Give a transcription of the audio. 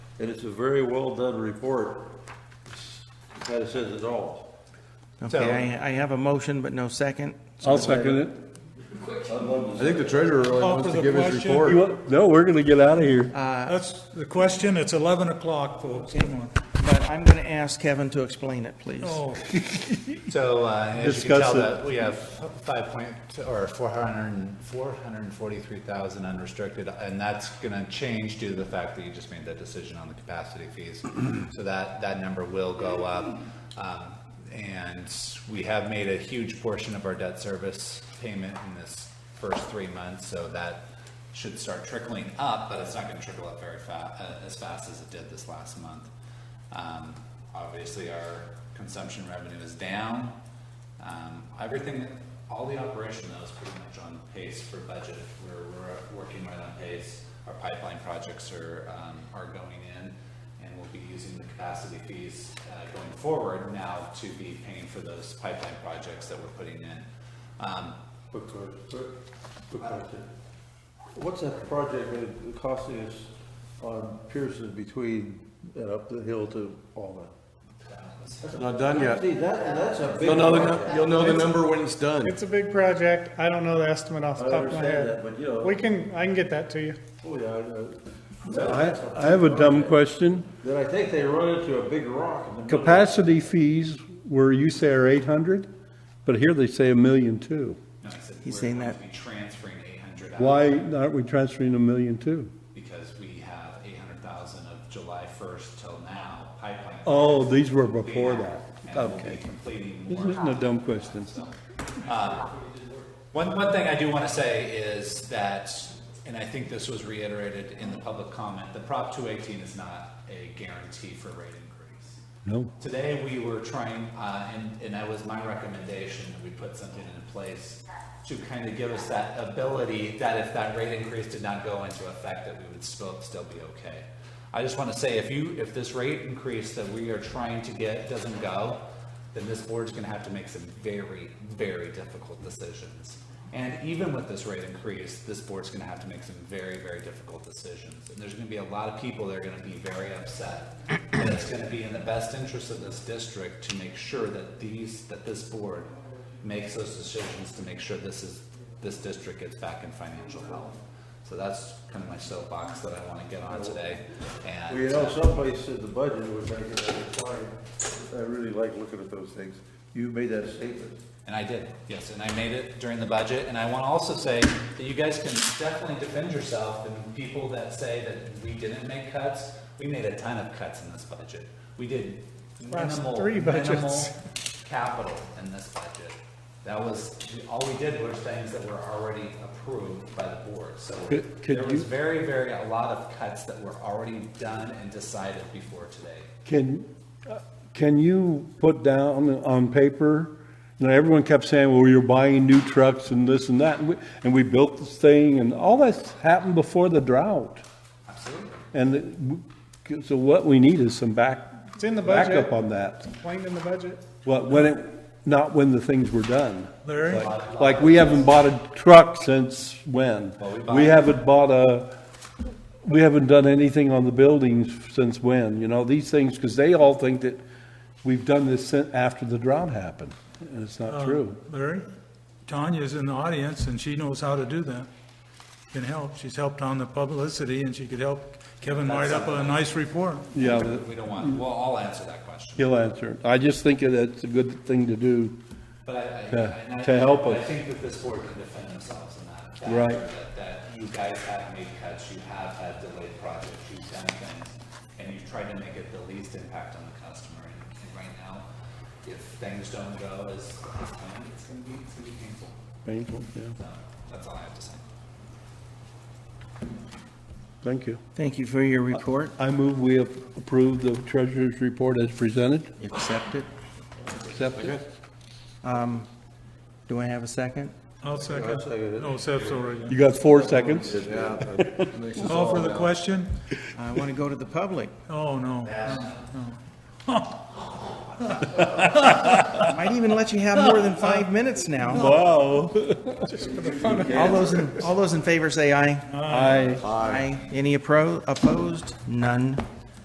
and it's a very well-done report. It Kind of says it all. Okay, I, I have a motion, but no second. I'll second it. I think the treasurer really Call wants for to the give his question. You report. want- No, we're gonna get out of here. That's the question. It's 11 o'clock, folks. Come on. But I'm going to ask Kevin to explain it, please. Oh, So, uh, as you can Discuss tell, it. that we have five point, or four hundred and, four hundred and forty-three thousand unrestricted, and that's gonna change due to the fact that you just made that decision on the capacity fees. So that, that number will go up. Um, and we have made a huge portion of our debt service payment in this first three months, so that should start trickling up, but it's not gonna trickle up very fa- uh, as fast as it did this last month. Um, Obviously, our consumption revenue is down. Um, Everything, all the operation though is pretty much on pace for budget. We're, we're working right on pace. Our pipeline projects are, um, are going in and we'll be using the capacity fees uh, going forward now to be paying for those pipeline projects that we're putting in. Um, Quick question, quick- quick question. What's that project gonna- costing us on Pearson between and up the hill to Alma? Not done yet. See, that, that's a big You'll know, the project. nu- you'll know the number when it's done. It's a big project. I don't know the estimate off I the top of my understand that, head. but you know. We can, I can get that to you. Oh, yeah, I know. I, I have a dumb question. Then I think they run into a big rock in the middle. Capacity fees were, you say are eight hundred, but here they say a million two. no, I said He's we're saying going to that- Be transferring eight hundred. Why aren't we transferring a million two? Because we have eight hundred thousand of July first till now pipeline. Oh, these were before Yeah, that. And we'll be Okay. completing This more. isn't a dumb question. uh, One, one thing I do want to say is that, and I think this was reiterated in the public comment, the Prop two eighteen is not a guarantee for rate increase. No. Today, we were trying, uh, and, and that was my recommendation, that we put something in place to kind of give us that ability that if that rate increase did not go into effect, that we would still, still be okay. I just want to say, if you, if this rate increase that we are trying to get doesn't go, then this board's gonna have to make some very, very difficult decisions. And even with this rate increase, this board's gonna have to make some very, very difficult decisions. And there's gonna be a lot of people that are gonna be very upset. And it's gonna be in the best interest of this district to make sure that these, that this board makes those decisions to make sure this is, this district gets back in financial health. So that's kind of my soapbox that I wanna get on today. And. Well, you know, someplace in the budget was making that decline. I really like looking at those things. You made that statement. And I did, yes, and I made it during the budget, and I want to also say that you guys can definitely defend yourself and people that say that we didn't make cuts, we made a ton of cuts in this budget. We did Last minimal, three budgets. minimal capital in this budget. That was, all we did was things that were already approved by the board, so Could- could there was you- very, very, a lot of cuts that were already done and decided before today. Can, uh, can you put down on paper, you know, everyone kept saying, well, you're buying new trucks and this and that, and we, and we built this thing, and all that's happened before the drought. Absolutely. And it- so what we need is some back, It's in the budget. backup on that. Explained in the budget. What, when it, not when the things were done. Larry, Like- Like, we haven't bought a truck since when? Well, we bought- We haven't bought a, we haven't done anything on the buildings since when, you know, these things, because they all think that we've done this sin- after the drought happened, and it's not true. Larry, Tanya's in the audience and she knows how to do that. Can help. She's helped on the publicity and she could help Kevin write up a nice report. Yeah, that- We don't want, well, I'll answer that question. he'll answer. it. I just think that it's a good thing to do. But I, I- To- and I- to help I us. think that this board can defend themselves in that. that- Right. That, that you guys have made cuts, you have had delayed projects, you've done things, and you've tried to make it the least impact on the customer. And and right now, if things don't go as, as planned, it's gonna be, it's gonna be painful. Painful, yeah. So, that's all I have to say. Thank you. Thank you for your report. I move we approve the treasurer's report as presented. Accept it. Accept it. Um, Do I have a second? I'll second. second it. No, Seth's already. You got four seconds. Call for the question? I want to go to the public. Oh, no. I Might even let you have more than five minutes now. Wow. All those, in all those in favor say aye. I. Aye. Any appro- opposed? None.